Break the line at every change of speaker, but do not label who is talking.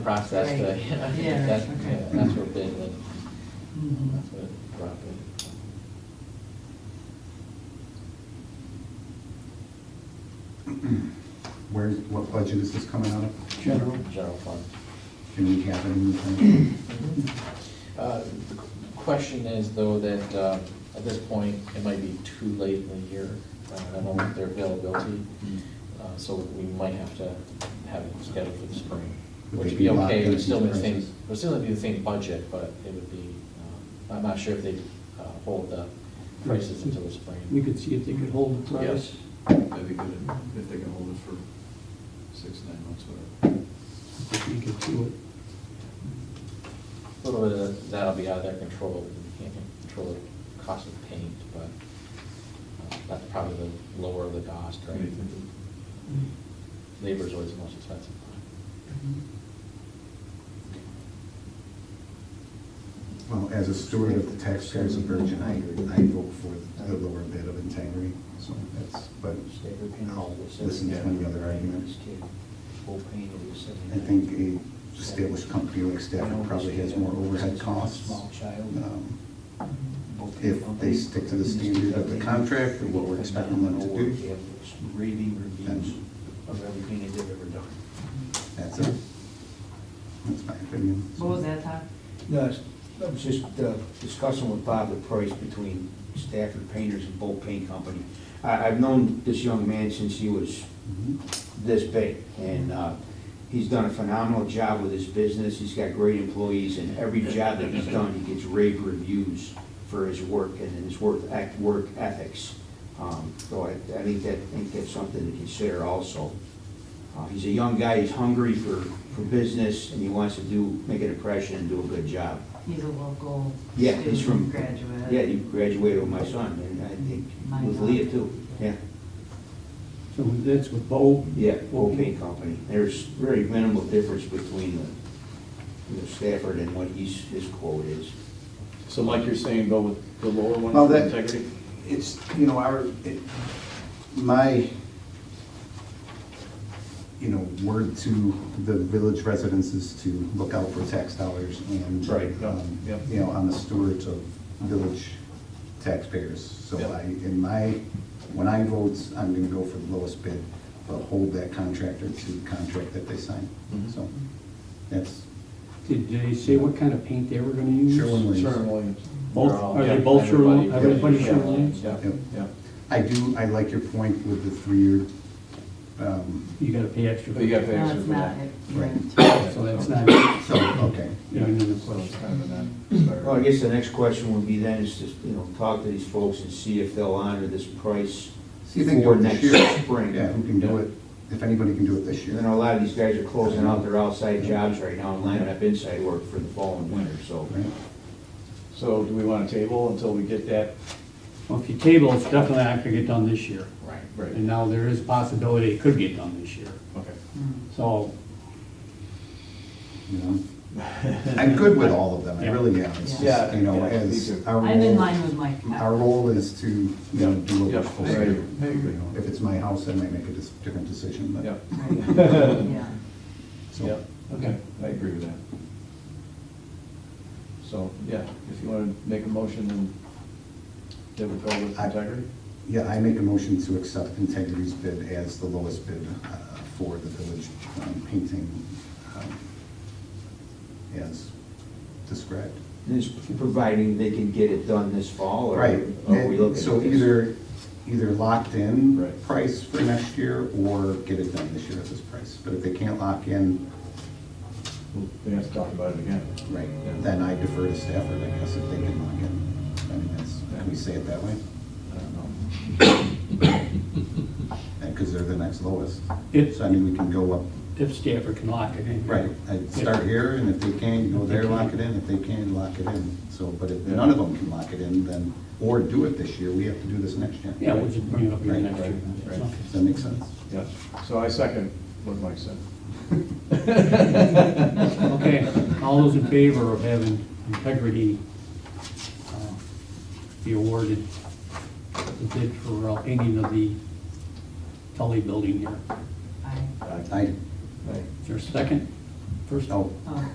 process to,
Right.
you know, I think
Yeah,
that-
okay.
that's where bid went,
Mhm.
that's what brought it.
Where, what budget is this coming out of?
General.
General fund.
Can we have it in the plan?
Uh, The qu- question is though that uh, at this point, it might be too late in the year. Uh, I don't know their availability, uh, so we might have to have it scheduled for the spring.
Would
Which
they
would
be
be
locked
okay, it
in
would
at
still be
these
the same,
prices?
it would still be the same budget, but it would be, um, I'm not sure if they hold the prices until the spring.
We could see if they could hold the price.
That'd be good if they can hold it for six, nine months, whatever.
If we could do it.
A little bit of that'll be out of their control, you can't control the cost of paint, but uh, that's probably the lower of the cost, right? Labor's always the most expensive.
Well, as a steward of the taxpayers of Virgin, I, I vote for the lower bid of integrity, so that's, but I'll listen to any other arguments. I think a established company like Stafford probably has more overhead costs. um, If they stick to the standard of the contract and what we're expecting them to do,
Reading reviews of everything that they've ever done.
that's it. That's my opinion.
What was that, Tom?
No, it's- I was just uh, discussing with Bob the price between Stafford Painters and Bolt Paint Company. I, I've known this young man since he was
Mhm.
this big, and uh, he's done a phenomenal job with his business, he's got great employees, and every job that he's done, he gets rave reviews for his work and his work, ec- work ethics. Um, So I, I think that, I think that's something to consider also. Uh, He's a young guy, he's hungry for, for business, and he wants to do, make an impression and do a good job.
He's a local
Yeah, he's
student
from.
graduate.
Yeah, he graduated with my son, and I think
My
with
son.
Leah too, yeah.
So that's with Bo.
Yeah, Old Paint Company. There's very minimal difference between the, the Stafford and what he's, his quote is.
So like you're saying, go with the lower one
Well,
for
that-
integrity?
It's, you know, our, it, my, you know, word to the village residents is to look out for tax dollars and.
Right, yeah,
um,
yeah.
You know, I'm a steward of village taxpayers, so
Yeah.
I, in my, when I vote, I'm gonna go for the lowest bid, but hold that contractor to the contract that they sign,
Mhm.
so that's
Did they say what kind of paint they were gonna use?
Sherwin-Williams.
Sherwin Williams.
Both,
They're all-
are they
yeah,
both Sherwin,
everybody-
everybody
yeah.
Sherwin?
Yeah,
Yep.
yeah.
I do, I like your point with the three-year, um,
You gotta pay extra.
But you gotta pay
No,
extra
it's
for
not.
that.
it- you're
Right.
right.
So that's not, you
so, okay.
know, another
So it's
question.
kind of a non-starter.
Well, I guess the next question would be then is just, you know, talk to these folks and see if they'll honor this price
See if they can do
for
it
next
this year.
spring.
Yeah, who can do it, if anybody can do it this
And
year.
then a lot of these guys are closing out their outside jobs right now and lining up inside work for the fall and winter, so.
Right?
So do we want to table until we get that?
Well, if you table, it's definitely not gonna get done this year.
Right.
And now there is a possibility it could get done this year.
Okay.
So,
You know? I'm good with all of them, I really am. It's just,
Yeah.
you know,
Yeah, me
as
too.
our
I'm in
role,
line with Mike.
our role is to, you know, do what we're
Yep,
supposed to
I
do.
agree. I agree.
You know, If it's my house, I might make a dis- different decision, but.
Yep,
Right. Yeah.
so-
yep, okay, I agree with that. So, yeah, if you want to make a motion, then that would go with
I-
integrity?
Yeah, I make a motion to accept Integrity's bid as the lowest bid uh, for the village um, painting um, as described.
This, providing they can get it done this fall or
Right,
are Oh, we looking? at
so
this?
either, either locked in
Right.
price for next year or get it done this year at this price. But if they can't lock in,
We have to talk about it again.
right, then I defer to Stafford, I guess, if they can lock in. I mean, that's, can we say it that way?
I don't know.
Because they're the next lowest.
If-
So I mean, we can go up,
if Stafford can lock it in.
right, I start here and if they can, go there, lock it in, if they can, lock it in. So, but if none of them can lock it in, then, or do it this year, we have to do this next year.
Yeah, we'll just bring it up here
Right,
next year.
right, right.
So-
Does that make sense?
Yes, so I second what Mike said.
Okay, all those in favor of having integrity uh, be awarded the bid for uh, painting of the Tully building here?
I-
I,
Is there a second? first.
Oh,
Oh.